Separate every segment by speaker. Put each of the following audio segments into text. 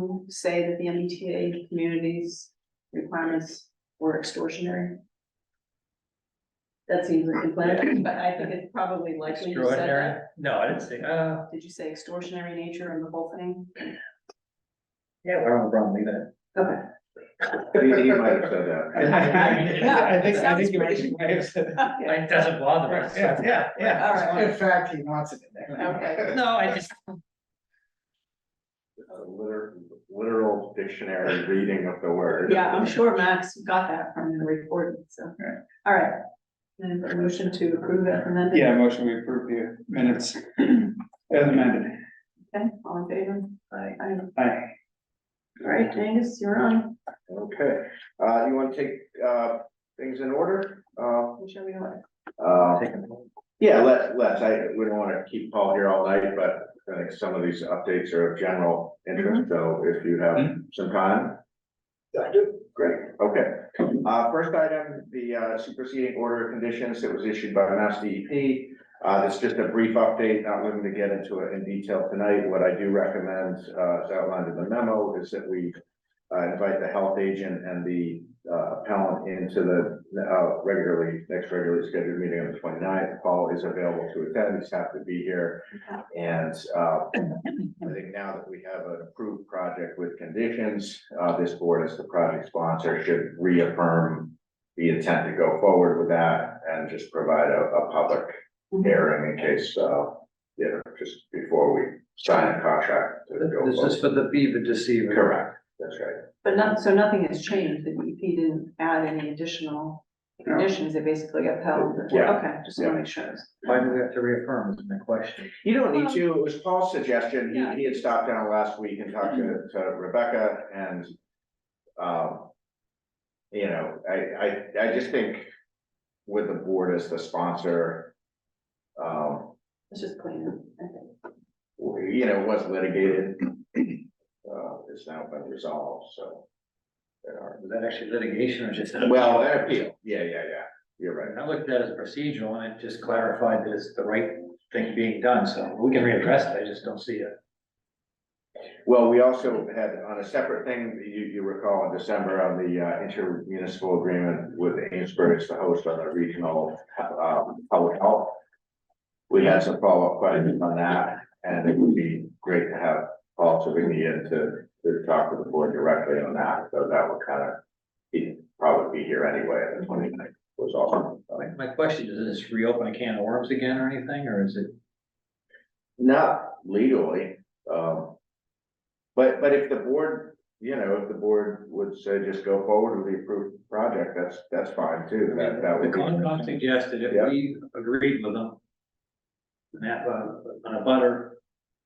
Speaker 1: to say that the MBTA community's requirements were extortionary? That seems like a plan, but I think it's probably likely you said
Speaker 2: Extraordinary,
Speaker 1: that.
Speaker 2: no, I didn't say, uh,
Speaker 1: Did you say extortionary nature in the whole thing?
Speaker 2: yeah, we're on the wrong, leave that.
Speaker 1: Okay.
Speaker 3: He, he might have said that.
Speaker 4: I think, I
Speaker 1: Sounds
Speaker 4: think you
Speaker 1: pretty-
Speaker 4: actually might have said.
Speaker 1: Okay,
Speaker 2: It doesn't bother us.
Speaker 4: Yeah, yeah, yeah.
Speaker 1: All right.
Speaker 4: In fact, he wants it in there.
Speaker 1: okay,
Speaker 2: No, I just,
Speaker 3: It's a liter- Literal dictionary reading of the word.
Speaker 1: yeah, I'm sure Max got that from the recording, so,
Speaker 4: Right.
Speaker 1: all right. Then a motion to approve that amendment?
Speaker 4: Yeah, motion we approve the minutes as amended.
Speaker 1: Okay, all in favor?
Speaker 2: I,
Speaker 1: Aye.
Speaker 4: Aye.
Speaker 1: All right, Angus, you're on,
Speaker 3: Okay, uh, you wanna take, uh, things in order? Uh,
Speaker 1: which are we on?
Speaker 3: uh,
Speaker 2: take a vote.
Speaker 3: yeah, let, let's, I, we don't wanna keep Paul here all night, but I think some of these updates are of general interest, so if you have some time. Mm-hmm. I do. Great, okay. Uh, first item, the uh, superseding order of conditions that was issued by Mass DEP. Uh, that's just a brief update, not looking to get into it in detail tonight. What I do recommend, uh, as outlined in the memo, is that we uh, invite the health agent and the uh, appellant into the, uh, regularly, next regularly scheduled meeting on the 29th. Paul is available to attend, he's happy to be here. And, uh, I think now that we have an approved project with conditions, uh, this board as the project sponsor should reaffirm the intent to go forward with that and just provide a, a public hearing in case, uh, you know, just before we sign a contract to go
Speaker 5: This is
Speaker 3: forward.
Speaker 5: for the beaver deceiver.
Speaker 3: Correct, that's right.
Speaker 1: But not, so nothing has changed, the DEP didn't add any additional
Speaker 4: No.
Speaker 1: conditions, they basically upheld, the-
Speaker 3: Yeah.
Speaker 1: okay, just wanna make sure.
Speaker 5: Why do we have to reaffirm is my question.
Speaker 3: You don't need to, it was Paul's suggestion,
Speaker 1: Yeah.
Speaker 3: he, he had stopped down last week and talked to, to Rebecca and, um, you know, I, I, I just think with the board as the sponsor, um,
Speaker 1: It's just clean, I think.
Speaker 3: you know, was litigated, uh, it's now been resolved, so. there are-
Speaker 5: Was that actually litigation or just?
Speaker 3: Well, that appeal, yeah, yeah, yeah, you're right.
Speaker 5: I looked at it as procedural and it just clarified that it's the right thing being done, so we can readdress it, I just don't see it.
Speaker 3: Well, we also had on a separate thing, you, you recall in December on the uh, intermunicipal agreement with Amesbury as the host on the regional, um, public health. We had some follow-up questions on that, and it would be great to have Paul Savigny in to, to talk to the board directly on that, so that would kind of, he'd probably be here anyway, and the twenty-ninth was awesome.
Speaker 5: My, my question is, is this reopen a can of worms again or anything, or is it?
Speaker 3: Not legally, um. But, but if the board, you know, if the board would say just go forward with the approved project, that's, that's fine too, that, that
Speaker 5: The
Speaker 3: would be.
Speaker 5: Concom suggested if we agreed with them. And that, uh, and a butter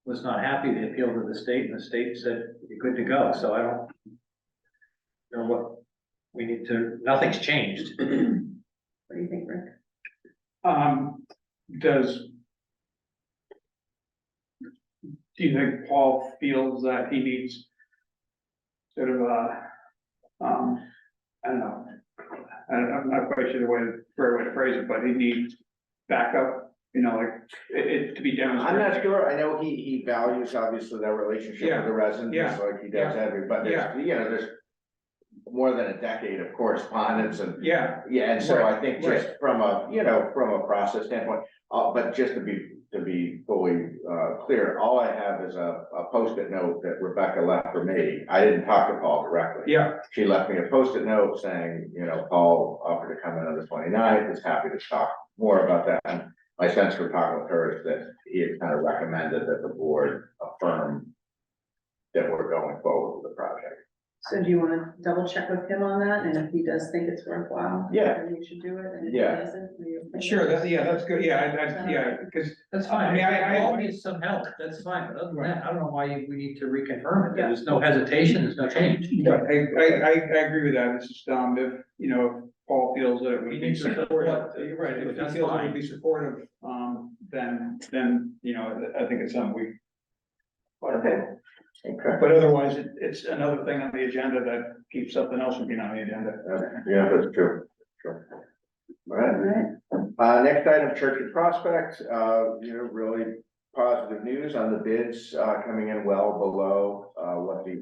Speaker 5: was not happy, they appealed to the state, and the state said, you're good to go, so I don't. Know what, we need to, nothing's changed.
Speaker 1: What do you think, Rick?
Speaker 4: Um, does. Do you think Paul feels that he needs? Sort of a, um, I don't know. I, I'm not quite sure the way, right way to phrase it, but he needs backup, you know, like, it, it to be
Speaker 3: I'm
Speaker 4: demonstrated.
Speaker 3: not sure, I know he, he values obviously that relationship with
Speaker 4: Yeah,
Speaker 3: the residents,
Speaker 4: yeah,
Speaker 3: just like he does every, but there's, you know, there's. More than a decade of correspondence and
Speaker 4: Yeah,
Speaker 3: Yeah, and so I think
Speaker 4: Right, right.
Speaker 3: just from a, you know, from a process standpoint, uh, but just to be, to be fully, uh, clear, all I have is a, a post-it note that Rebecca left for me. I didn't talk to Paul directly.
Speaker 4: yeah,
Speaker 3: She left me a post-it note saying, you know, Paul offered to come in on the 29th. is happy to talk more about that. And My sense from talking with her is that he had kind of recommended that the board affirm that we're going forward with the project.
Speaker 1: So do you wanna double check with him on that, and if he does think it's worthwhile?
Speaker 3: Yeah.
Speaker 1: Then we should do it, and if he
Speaker 3: Yeah.
Speaker 1: doesn't, we.
Speaker 4: sure, that's, yeah, that's good, yeah, I, I, yeah, because
Speaker 5: That's fine, I
Speaker 4: I mean, I- I-
Speaker 5: all needs some help, that's fine, but other than that, I don't know why we need to reconfirm it, there's no hesitation, there's no change.
Speaker 4: Yeah, I, I, I, I agree with that, it's just, um, if, you know, Paul feels that it would
Speaker 5: You
Speaker 4: be
Speaker 5: need to
Speaker 4: supportive.
Speaker 5: support it.
Speaker 4: You're right, if
Speaker 5: That's
Speaker 4: he feels it
Speaker 5: fine.
Speaker 4: would be supportive, um, then, then, you know, I think it's something we.
Speaker 1: Okay.
Speaker 3: Okay.
Speaker 4: But otherwise, it, it's another thing on the agenda that keeps something else from being on the agenda.
Speaker 3: Yeah, that's true. Sure. All right.
Speaker 1: All right,
Speaker 3: Uh, next item, Church and Prospect, uh, you know, really positive news on the bids, uh, coming in well below, uh, what the